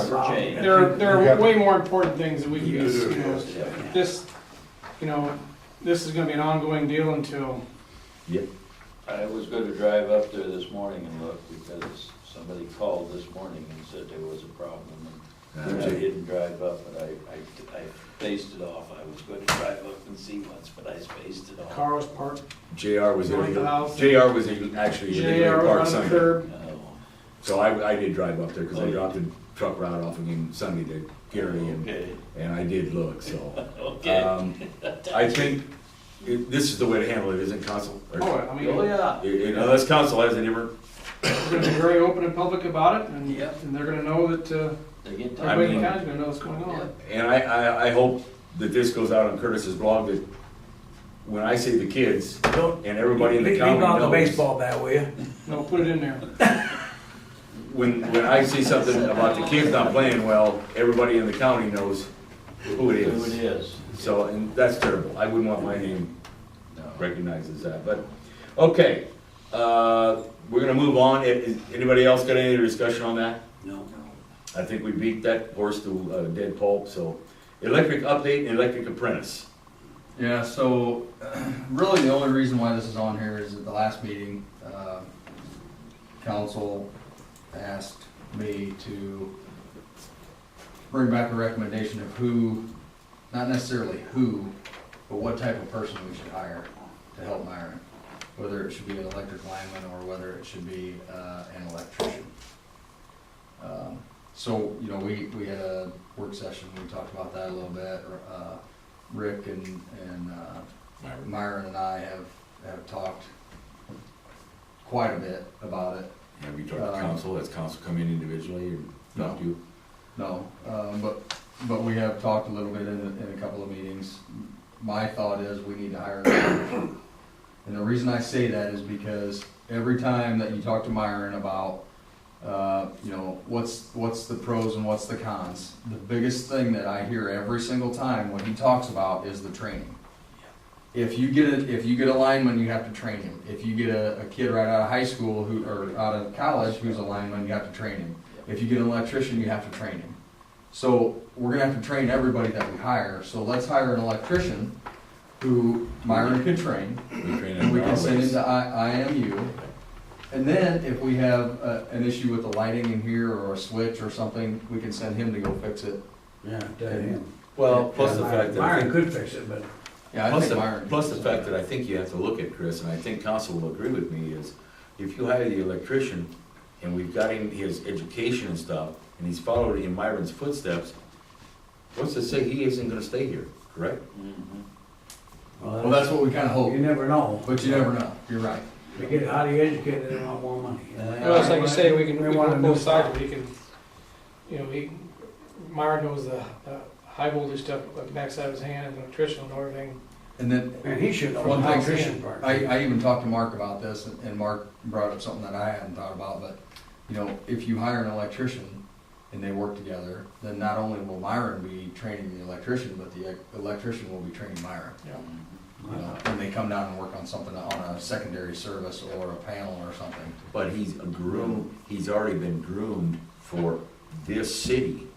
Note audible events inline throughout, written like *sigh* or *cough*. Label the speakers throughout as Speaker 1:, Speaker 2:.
Speaker 1: for Jay.
Speaker 2: There are, there
Speaker 3: You
Speaker 2: are
Speaker 3: got-
Speaker 2: way more important things that we can
Speaker 4: You
Speaker 2: use,
Speaker 4: do,
Speaker 2: you know,
Speaker 4: yes.
Speaker 2: this, you know, this is gonna be an ongoing deal until,
Speaker 1: I was gonna drive up there this morning and look, because somebody called this morning and said there was a problem.
Speaker 5: Ah,
Speaker 1: And
Speaker 5: Uh,
Speaker 1: I didn't drive up, but I, I, I spaced it off, I was gonna drive up and see once, but I spaced it
Speaker 2: *laughs*
Speaker 1: off.
Speaker 2: Carl's Park,
Speaker 5: JR
Speaker 2: North of
Speaker 5: was
Speaker 2: the
Speaker 5: illegal,
Speaker 2: house.
Speaker 5: JR was illegal- actually
Speaker 2: JR
Speaker 5: illegally parked
Speaker 2: was on the
Speaker 5: Sunday.
Speaker 2: curb,
Speaker 1: No.
Speaker 5: So I, I did drive up there because
Speaker 1: Oh,
Speaker 5: I
Speaker 1: yeah.
Speaker 5: dropped the truck route off again Sunday to Gary and,
Speaker 1: Okay,
Speaker 5: and I did
Speaker 1: *laughs*
Speaker 5: look, so.
Speaker 1: okay.
Speaker 5: Um, I think it- this is the way to handle it, isn't it, council? Or-
Speaker 2: oh, I mean,
Speaker 1: Oh, yeah.
Speaker 5: You- you know, Unless council has a different,
Speaker 2: we're gonna be very open and public about it, and,
Speaker 1: Yep.
Speaker 2: and they're gonna know that, uh,
Speaker 1: They get
Speaker 5: I
Speaker 2: everybody in
Speaker 5: mean-
Speaker 2: the county's gonna know what's going on.
Speaker 5: and I, I, I hope that this goes out on Curtis's blog that when I say the kids
Speaker 4: Don't
Speaker 5: and everybody in the
Speaker 4: leave
Speaker 5: county
Speaker 4: out the
Speaker 5: knows.
Speaker 4: baseball bat, will you?
Speaker 2: No, put it in there,
Speaker 5: When, when I see something about the kids not playing well, everybody in the county knows who it
Speaker 1: Who
Speaker 5: is.
Speaker 1: it is.
Speaker 5: So, and that's terrible. I wouldn't want my name uh,
Speaker 1: No.
Speaker 5: recognized as that, but, okay. Uh, we're gonna move on. I- Is, anybody else got any discussion on that?
Speaker 1: No.
Speaker 5: I think we beat that horse to uh dead pulp, so. Electric update and electric apprentice.
Speaker 6: Yeah, so *clears throat* really the only reason why this is on here is at the last meeting, uh, council asked me to bring back a recommendation of who, not necessarily who, but what type of person we should hire to help Myron. Whether it should be an electric lineman or whether it should be uh, an electrician. Um, So, you know, we, we had a work session, we talked about that a little bit. uh, Rick and, and uh, Myron and I have, have talked quite a bit about it.
Speaker 5: Have you
Speaker 6: to council?
Speaker 5: Has council come in individually or
Speaker 6: talked to
Speaker 5: you?
Speaker 6: No, um, but, but we have talked a little bit in, a- in a couple of meetings. My thought is we need to hire an electrician. And the reason I say that is because every time that you talk to Myron about, uh, you know, what's, what's the pros and what's the cons, the biggest thing that I hear every single time when he talks about is the training. If you get a, if you get a lineman, you have to train him. If you get a, a kid right out of high school who, or out of college who's a lineman, you have to train him. If you get an electrician, you have to train him. So we're gonna have to train everybody that we hire, so let's hire an electrician who Myron can train,
Speaker 5: We train
Speaker 6: and we
Speaker 5: our
Speaker 6: can send him
Speaker 5: ways.
Speaker 6: to I, IMU. And then if we have, uh, an issue with the lighting in here or a switch or something, we can send him to go fix it.
Speaker 4: Yeah.
Speaker 5: Well, plus the fact that. I
Speaker 4: Myron
Speaker 5: think-
Speaker 4: could fix it, but
Speaker 6: Yeah, I
Speaker 5: Plus
Speaker 6: think
Speaker 5: the,
Speaker 6: Myron.
Speaker 5: plus the fact that I think you have to look at, Chris, and I think council will agree with me, is if you hire the electrician, and we've got him, his education and stuff, and he's followed in Myron's footsteps, what's to say he isn't gonna stay here, correct?
Speaker 1: Mhm.
Speaker 6: Well, that's what we kinda
Speaker 4: you
Speaker 6: hope,
Speaker 4: never know.
Speaker 6: but you never know, you're right.
Speaker 4: They get highly educated, they want more money.
Speaker 2: well, it's like you say, we can,
Speaker 4: They
Speaker 2: we can
Speaker 4: want a
Speaker 2: work
Speaker 4: new
Speaker 2: both
Speaker 4: style.
Speaker 2: sides, we can, you know, we, Myron knows the, the high voltage stuff, like backside of his hand, and electrician and everything,
Speaker 6: And then,
Speaker 4: And he should know
Speaker 6: One
Speaker 4: the
Speaker 6: thing-
Speaker 4: electrician part.
Speaker 6: I, I even talked to Mark about this, and- and Mark brought up something that I hadn't thought about, but, you know, if you hire an electrician and they work together, then not only will Myron be training the electrician, but the e- electrician will be training Myron.
Speaker 2: you know.
Speaker 6: You know, when they come down and work on something on a secondary service or a panel or something.
Speaker 5: But he's a groom, he's already been groomed for this city.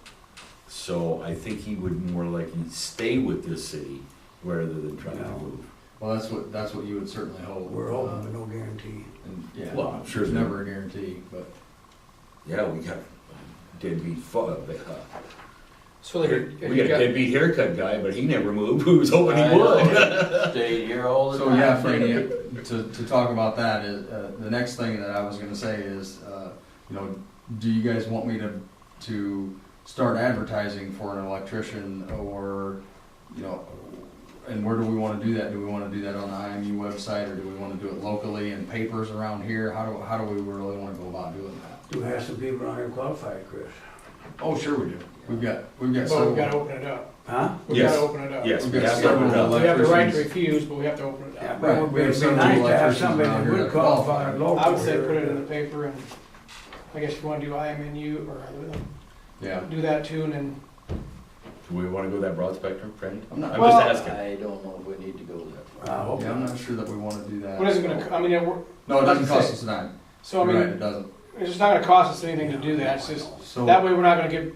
Speaker 5: So I think he would more likely stay with this city rather than try to
Speaker 4: Yeah.
Speaker 5: move.
Speaker 6: Well, that's what, that's what you would certainly hope.
Speaker 4: We're open, but no guarantee.
Speaker 6: Uh, And, yeah,
Speaker 5: Well, I'm sure
Speaker 6: there's
Speaker 5: that-
Speaker 6: never a guarantee, but,
Speaker 5: Yeah, we got deadbeat fu- uh,
Speaker 2: So like, you
Speaker 5: We got a
Speaker 2: got-
Speaker 5: deadbeat haircut guy, but he never moved. *laughs* We was hoping
Speaker 1: I
Speaker 5: he
Speaker 1: know. *laughs*
Speaker 5: would.
Speaker 1: Stayed here all the
Speaker 6: so
Speaker 1: time.
Speaker 6: yeah, Franny, to, to talk about that is, uh, the next thing that I was gonna say is, uh, you know, do you guys want me to, to start advertising for an electrician or, you know, and where do we wanna do that? Do we wanna do that on the IMU website or do we wanna do it locally in papers around here? How do, how do we really wanna go about doing that?
Speaker 4: You have some people on here qualified, Chris.
Speaker 6: Oh, sure we do. We've got, we've got
Speaker 2: but we've gotta
Speaker 6: several.
Speaker 2: open it up,
Speaker 4: Huh?
Speaker 2: we
Speaker 5: Yes.
Speaker 2: gotta open it up.
Speaker 5: Yes, we
Speaker 6: We've got
Speaker 5: have to *laughs* open it
Speaker 6: several
Speaker 5: up.
Speaker 2: We have the right to
Speaker 6: electricians.
Speaker 2: refuse, but we have to open it
Speaker 4: Yeah,
Speaker 2: up.
Speaker 4: but
Speaker 6: Right,
Speaker 4: it'd
Speaker 6: we have
Speaker 4: be
Speaker 6: some
Speaker 4: nice to have
Speaker 6: electricians
Speaker 4: somebody
Speaker 6: around
Speaker 4: that
Speaker 6: here
Speaker 4: would
Speaker 6: that
Speaker 4: qualify
Speaker 6: qualify.
Speaker 4: local.
Speaker 2: I would say put it
Speaker 4: here.
Speaker 2: in the paper and, I guess you wanna do IMNU or
Speaker 6: Yeah.
Speaker 2: do that too and then,
Speaker 5: Do we want to go that broad spectrum, friend?
Speaker 6: I'm not,
Speaker 5: I'm
Speaker 2: Well-
Speaker 5: just asking.
Speaker 1: I don't know if we need to go that
Speaker 4: I
Speaker 1: far.
Speaker 4: hope
Speaker 6: yeah, I'm
Speaker 4: not.
Speaker 6: not sure that we wanna do that.
Speaker 2: what is it gonna, co- I mean, it wor-
Speaker 6: No, it doesn't
Speaker 2: Like I
Speaker 6: cost
Speaker 2: said-
Speaker 6: us a dime.
Speaker 2: so I
Speaker 6: You're right,
Speaker 2: mean,
Speaker 6: it doesn't.
Speaker 2: it's just not gonna cost us anything to do that, it's just,
Speaker 6: So.
Speaker 2: that way we're not gonna get